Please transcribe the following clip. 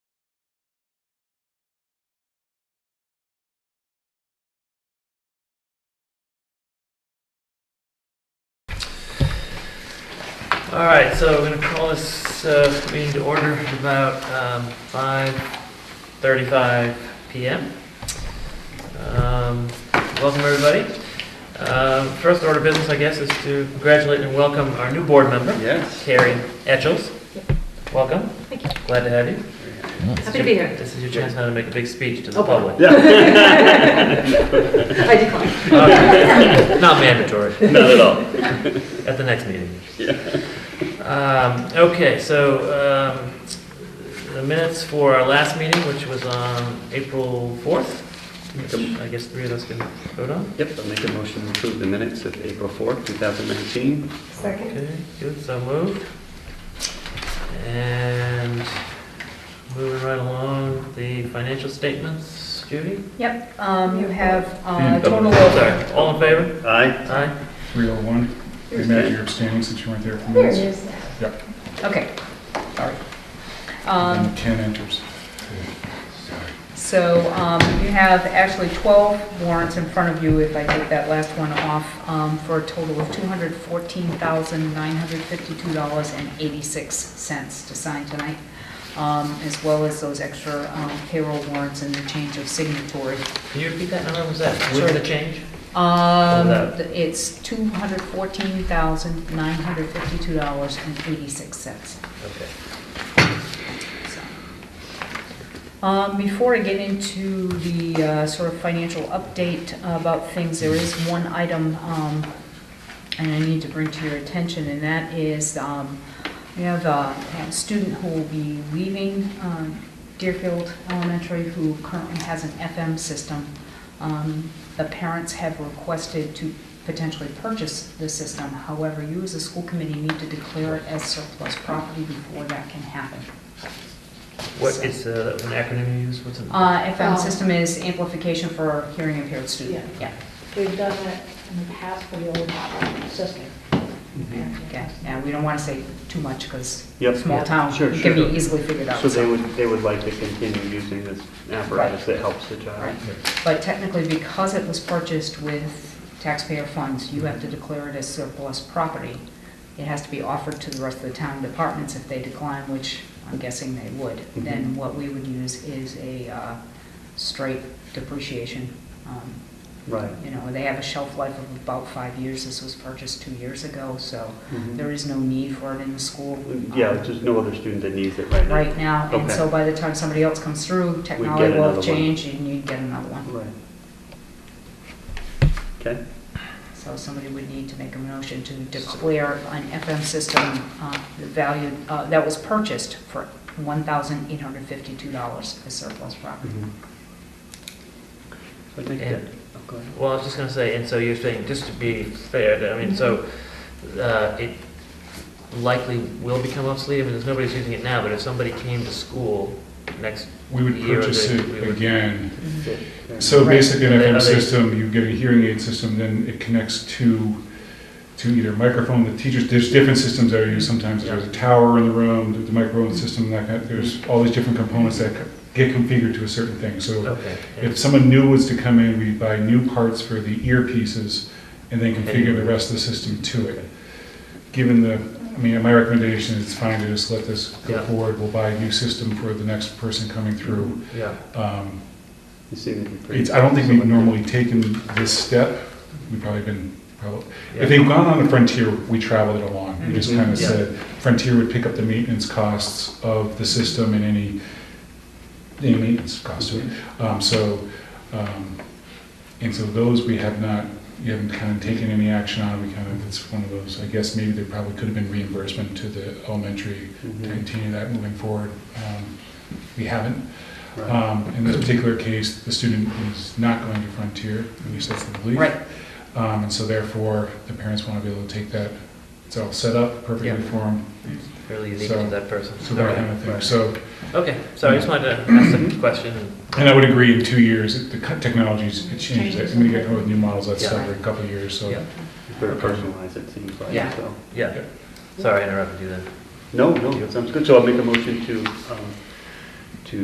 All right, so we're going to call this uh, meeting to order at about um, 5:35 PM. Um, Welcome, everybody. Um, First order of business, I guess, is to congratulate and welcome our new board member, Yes. Carrie Etchells. Welcome. Thank you. Glad to have you. Happy to be here. This is your chance now to make a big speech to the Oh, boy. public. Yeah, I decline. Okay. Not mandatory. not at all. At the next meeting. Um, Okay, so um, the minutes for our last meeting, which was on April 4th, which I guess three of us can vote on. Yep, I'll make a motion to approve the minutes of April 4th, 2019. Second. Okay, good, so moved. And moving right along, the financial statements, Judy? Yep, um, you have uh, Hmm. a Mm. total of, Sorry, all in favor? Aye. Aye? 301, you met your abstaining since you weren't there for There it minutes. is. okay, sorry. And Um, then Ken enters. So um, you have actually 12 warrants in front of you, if I take that last one off, um, for a total of $214,952.86 to sign tonight, um, as well as those extra um, payroll warrants and the change of signatory. Can you repeat that number, was that with Sure. the change? Um, Hold th- It's $214,952.86. Okay. So. Um, Before I get into the uh, sort of financial update about things, there is one item, um, and I need to bring to your attention, and that is, um, we have uh, a student who will be leaving um, Deerfield Elementary who currently has an FM system. Um, The parents have requested to potentially purchase the system. However, you as a school committee need to declare it as surplus property before that can happen. What is, uh, that was an acronym you used, what's it? Uh, FM Um, system is amplification for hearing impaired student. Yeah. We've done that in the past for the old model system. Okay, now, we don't want to say too much, because Yep. small Yeah. town, Sure, it can sure. be easily figured out. So they would, they would like to continue using this apparatus that helps the Right. child? But technically, because it was purchased with taxpayer funds, you have to declare it as surplus property. It has to be offered to the rest of the town departments if they decline, which I'm guessing they would. Mm-hmm. Then what we would use is a uh, straight depreciation um, Right. You know, they have a shelf life of about five years. This was purchased two years ago, so Mhm. there is no need for it in the school. Mm-hmm. Yeah, um, there's just no other student that needs it right now. Right now, and Okay. so by the time somebody else comes through, technology will another have one. changed and you'd get another one. Right. Okay, So somebody would need to make a motion to declare an FM system uh, the value, uh, that was purchased for $1,852 as surplus property. Mhm. So I think And- that, oh, go ahead. Well, I was just gonna say, and so you're saying, just to be fair, that, I mean, so, uh, it likely will become obsolete, I mean, there's nobody's using it now, but if somebody came to school next We would year or purchase they- it we would- Yeah, again. fair So Right. basically, an They- are FM they- system, you get a hearing aid system, then it connects to, to either microphone, the teachers, there's different systems that are used sometimes. There's a tower in the room, there's the microphone system, that kind, there's all these different components that get configured to a certain thing. So Okay. If someone new was to come in, we'd buy new parts for the earpieces and then configure the rest of the system to it. Given the, I mean, my recommendation is fine to just let this go Yeah. forward. We'll buy a new system for the next person coming through. Yeah, Um, You seem to be pretty. It's, I don't think we've selective. normally taken this step. We've probably been, probably, Yeah. Mm-hmm. if they've gone on the frontier, we traveled it along. We just Mhm. kind of Yeah. said, Frontier would pick up the maintenance costs of the system and any, any maintenance costs to it. Mm-hmm. Um, so, um, and so those we have not, we haven't kind of taken any action on, we kind of, it's one of those, I guess maybe there probably could have been reimbursement to the elementary to Mhm. continue that moving forward. Um, We haven't. Right. Um, in this particular case, the student is not going to Frontier, at least that's the belief. Right, Um, and so therefore, the parents want to be able to take that, it's all set up perfectly Yeah. for them, really unique So- to that person. so that kind Okay, of thing. So, Okay. so I just wanted to ask the question. and I would agree, in two years, it- the co- technology's, it changes, Changes. I mean, you get with new models, that's Yeah. every couple of years, so. Yeah. Very personalized, it seems like, Yeah. so. Yeah, sorry I interrupted you then. No, no, that sounds good. So I'll make a motion to um,